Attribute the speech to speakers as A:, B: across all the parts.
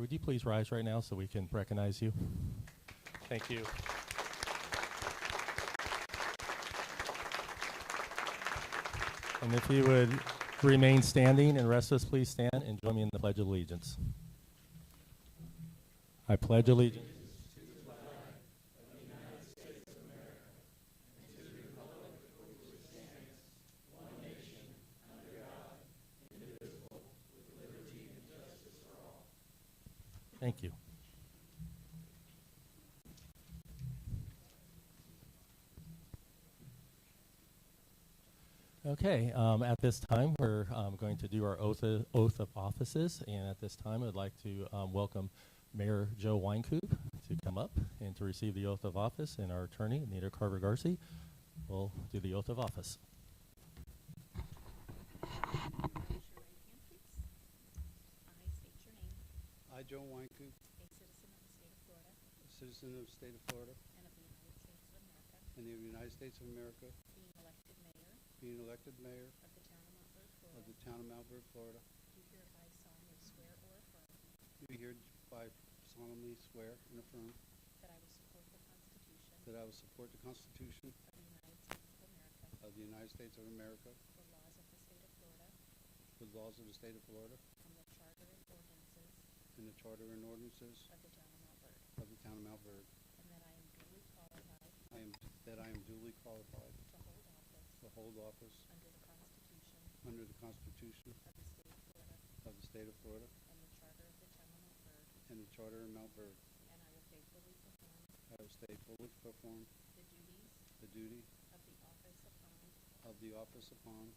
A: Would you please rise right now so we can recognize you? Thank you. And if you would remain standing and rest us, please stand and join me in the Pledge of Allegiance. I pledge allegiance. Thank you. Okay, um, at this time, we're um, going to do our oath of, oath of offices, and at this time, I'd like to um, welcome Mayor Joe Weinkoop to come up and to receive the oath of office, and our attorney, Anita Carver Garcia, will do the oath of office.
B: Raise your right hand, please. I state your name,
C: I, Joe Wynkoop,
B: a citizen of the state of Florida
C: a citizen of the state of Florida
B: and of the United States of America,
C: and of the United States of America,
B: being elected mayor
C: being elected mayor
B: of the town of Montverde,
C: of
B: Florida,
C: the town of Malvern, Florida,
B: do hereby solemnly swear or affirm
C: do hereby solemnly swear and affirm
B: that I will support the Constitution
C: that I will support the Constitution
B: of the United States of America,
C: of the United States of America,
B: the laws of the state of Florida,
C: the laws of the state of Florida,
B: and the charter and ordinances
C: and the charter and ordinances
B: of the town of Montverde,
C: of the town of Malvern.
B: and that I am duly qualified
C: I am, that I am duly qualified
B: to hold office
C: to hold office
B: under the Constitution
C: under the Constitution
B: of the state of Florida
C: of
B: and the
C: the state of Florida
B: charter of the town of Montverde,
C: and the charter of Malvern.
B: And I will faithfully perform
C: I will stay fully perform
B: the duties
C: the duty
B: of the office upon
C: of the office upon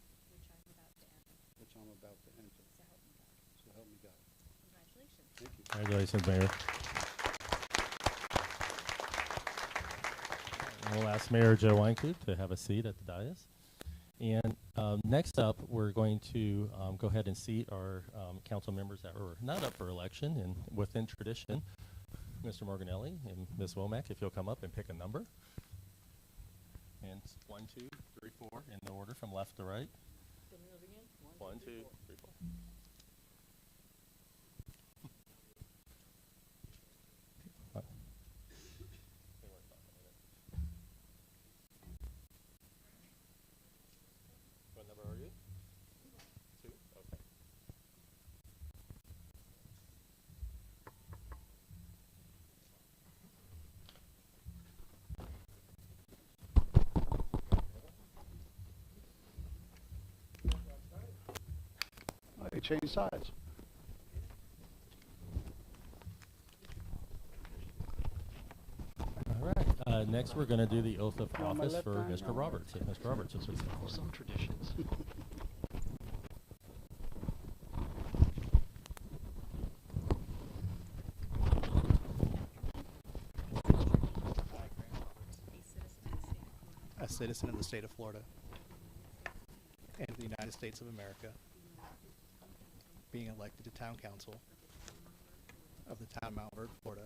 B: which I'm about to enter,
C: which I'm about to enter.
B: so help me God.
C: So help me God.
B: Congratulations.
C: Thank you.
A: Congratulations, Mayor. And We'll ask Mayor Joe Weinkoop to have a seat at the dais. And um, next up, we're going to um, go ahead and seat our um, council members that were not up for election. And within tradition, Mr. Morganelli and Ms. Womack, if you'll come up and pick a number. And it's one, two, three, four, in the order from left to right. One, two, three, four. Uh, What number are you? Two, okay.
C: They changed sides.
A: All right, uh, next we're gonna do the oath of
C: on my
A: office
C: left
A: for
C: hand,
A: Mr.
C: on my
A: Roberts. If Mr. Roberts is forward.
D: Some traditions.
B: A citizen of the state of Florida,
E: a citizen of the state of Florida and of the United States of America, being elected to town council of the town of Mount Vernon, Florida,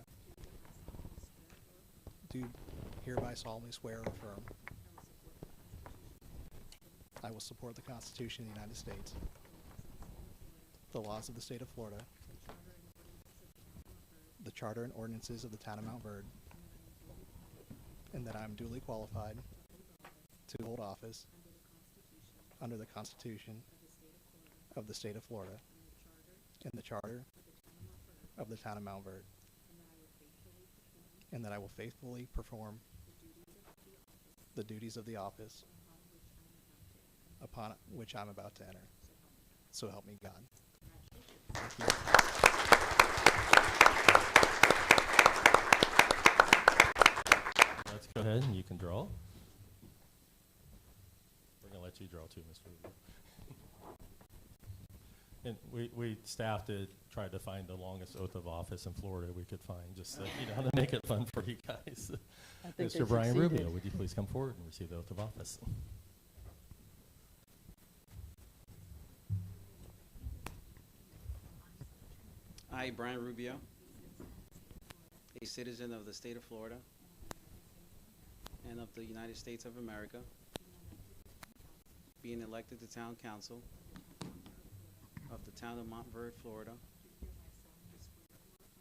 E: do hereby solemnly swear or affirm I will support the Constitution of the United States, the laws of the state of Florida, the charter and ordinances of the town of Mount Vernon, and that I am duly qualified to hold office under the Constitution of the State of Florida and the Charter of the Town of Mount Verde, and that I will faithfully perform the duties of the office upon which I'm about to enter. So help me God. Thank you.
A: Let's go ahead and you can draw. We're gonna let you draw too, Mr. Rubio. And we, we staff did try to find the longest oath of office in Florida we could find, just to, you know, to make it fun for you guys.
F: I think they
A: Mr. Brian Rubio,
F: succeeded.
A: would you please come forward and receive the oath of office?
G: I, Brian Rubio, a citizen of the state of Florida and of the United States of America, being elected to town council of the town of Montverde, Florida,